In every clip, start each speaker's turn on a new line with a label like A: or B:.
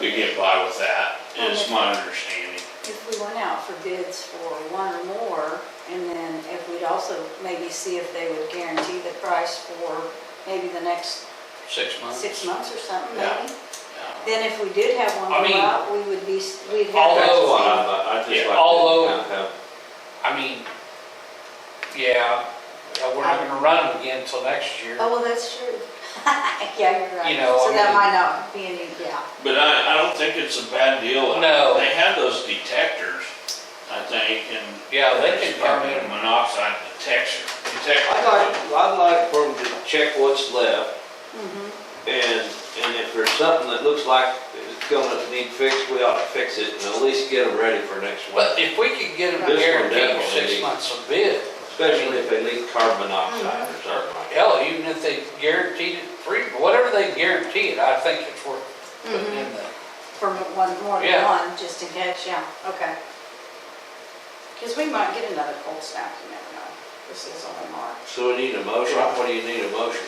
A: we get by with that, is
B: Okay.
A: my understanding.
B: If we went out for bids for one or more, and then if we'd also maybe see if they would guarantee the price for maybe the next
C: six months.
B: six months or something,
A: Yeah.
B: maybe. Then if we did have one
C: I
B: go
C: mean,
B: out, we would be, s- we'd have.
C: although, uh,
B: to
D: Well, uh, I- I just
A: uh, Yeah,
D: like to
C: although-
D: kind of have-
C: I mean, yeah, uh, we're not gonna run them again till next year.
B: see- Oh, well, that's true. Yeah, you're right.
C: You know,
B: So
C: I
B: that
C: mean-
B: might not be any, yeah.
A: But I, I don't think it's a bad deal.
C: No.
A: They have those detectors, I think, and.
C: Yeah, they can come
A: Carbon
C: in.
A: monoxide detector, detector.
D: I'd like, I'd like for them to check what's left,
B: Mhm.
D: and, and if there's something that looks like it's gonna need fixed, we ought to fix it, and at least get them ready for next
C: But
D: winter.
C: if we could get them
D: This one
C: guaranteed
D: definitely
C: six
D: needs-
C: months of bid,
D: Especially if they leak carbon monoxide or something like that.
C: hell, even if they guaranteed it free, whatever they guarantee it, I think it's worth putting in there.
B: For one, more than
C: Yeah.
B: one, just in case, yeah, okay. Because we might get another cold snap, you never know. This is only March.
D: So we need a motion, what do you need a motion?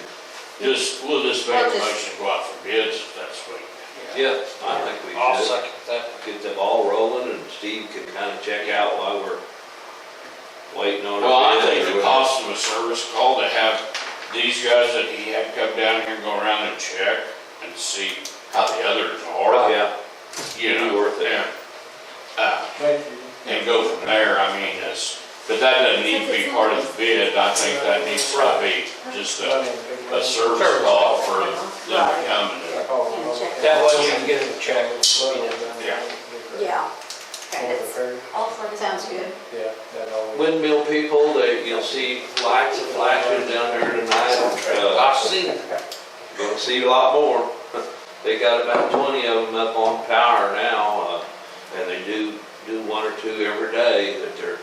A: Just, we'll just make a
B: Well, just-
A: motion to go out for bids if that's what.
D: Yeah, I think we
C: I'll
D: should.
C: second that.
D: Get the ball rolling, and Steve can kind of check out while we're waiting on. a
A: Well, I
D: bid or
A: think the
D: whatever.
A: cost of a service call to have these guys that he had come down here and go around and check and see how the others are,
D: Yeah,
A: you
D: Be
A: know?
D: worth it.
A: yeah. Uh,
E: Thank you.
A: and go from there, I mean, it's, but that doesn't need to be part of the bid, I think that needs to be just a, a service call for them to come and,
C: That way we can get them checked.
A: Yeah.
B: Yeah.
E: Over
B: Okay,
E: the
B: that's-
E: ferry,
B: all for- sounds good.
E: yeah, that always.
D: windmill people, they, you'll see lights flashing down there tonight. Uh,
C: I've seen it.
D: Gonna see a lot more. They got about twenty of them up on power now, uh, and they do, do one or two every day that they're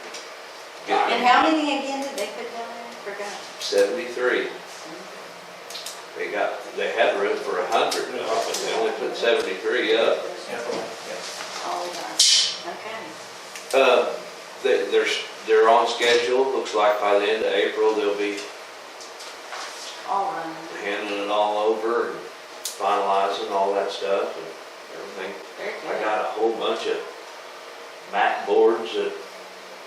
B: And
D: getting
B: how many again did they put down there? Forgot.
D: seventy-three. They got, they had room for a hundred, but they only put seventy-three up.
B: All done. Okay.
D: Uh, they, they're, they're on schedule. Looks like by the end of April, they'll be
B: All running.
D: handing it all over and finalizing all that stuff and everything.
B: Very
D: I
B: good.
D: got a whole bunch of mat boards that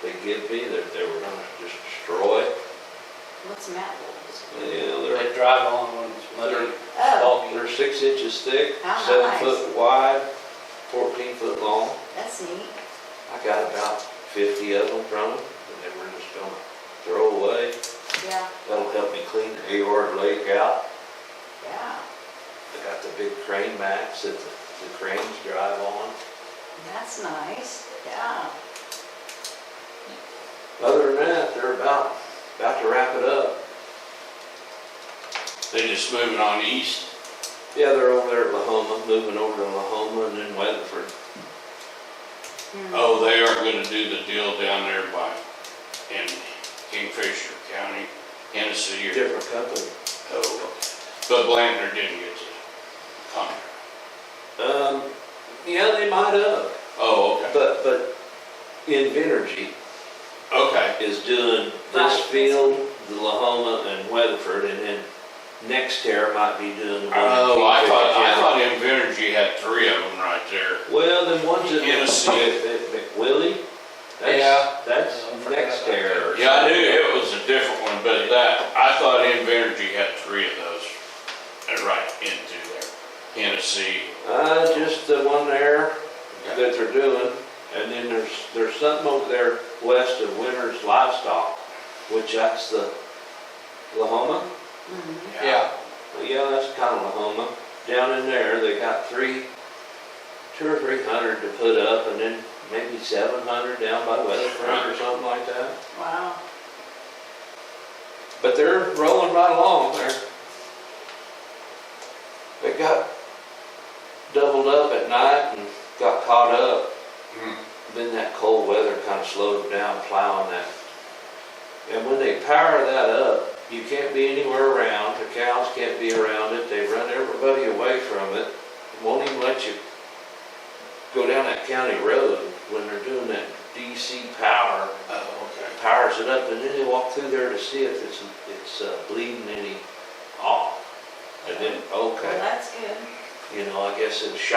D: they give me that they were gonna just destroy.
B: What's Matt Wolf's?
D: Yeah,
C: They drive on when it's muddy.
B: Oh,
D: they're, they're six inches thick,
B: How
D: seven
B: nice.
D: foot wide, fourteen foot long.
B: that's neat.
D: I got about fifty of them from them and they were just gonna throw away.
B: Yeah,
D: That'll help me clean Aor Lake out.
B: yeah.
D: I got the big crane mats that the the cranes drive on.
B: That's nice. Yeah.
D: Other than that, they're about, about to wrap it up.
A: they just moving on east.
D: Yeah, they're over there at Lahoma, moving over to Lahoma and then Weatherford.
B: Hmm.
A: Oh, they are gonna do the deal down there by, in Kingfisher County, Hennessy or.
D: Different company.
A: Oh, But Blanton didn't get to come.
D: Um, yeah, they might have,
A: Oh, okay,
D: but, but Invenergy
A: okay,
D: is doing
B: Right.
D: this field, the Lahoma and Weatherford, and then next year might be doing the one. in
A: oh, I thought, I
D: Kingfisher
A: thought Invenergy had three of them right there.
D: County. Well, then one's in
A: Hennessy.
D: McWillie. That's-
C: Yeah.
D: That's next year. or
A: Yeah, I knew
D: something.
A: it was a different one, but that, I thought Invenergy had three of those uh, right into there. Hennessy.
D: Uh, just the one there that they're doing, and then there's, there's something over there west of Winter's Livestock, which that's the Lahoma.
B: Mhm.
C: Yeah.
D: Well, Yeah, that's kind of Lahoma. Down in there, they got three, two or three hundred to put up, and then maybe seven hundred down by Weatherford or something like that.
B: Wow.
D: But they're rolling right along there. They got doubled up at night and got caught up.
A: Hmm.
D: Then that cold weather kind of slowed them down plowing that. And when they power that up, you can't be anywhere around, the cows can't be around it, they run everybody away from it. Won't even let you go down that county road when they're doing that DC power
A: Oh, okay.
D: powers it up, and then they walk through there to see if it's, it's uh, bleeding any off. And then,
B: Well,
D: okay,
B: that's good.
D: you know, I guess it's shot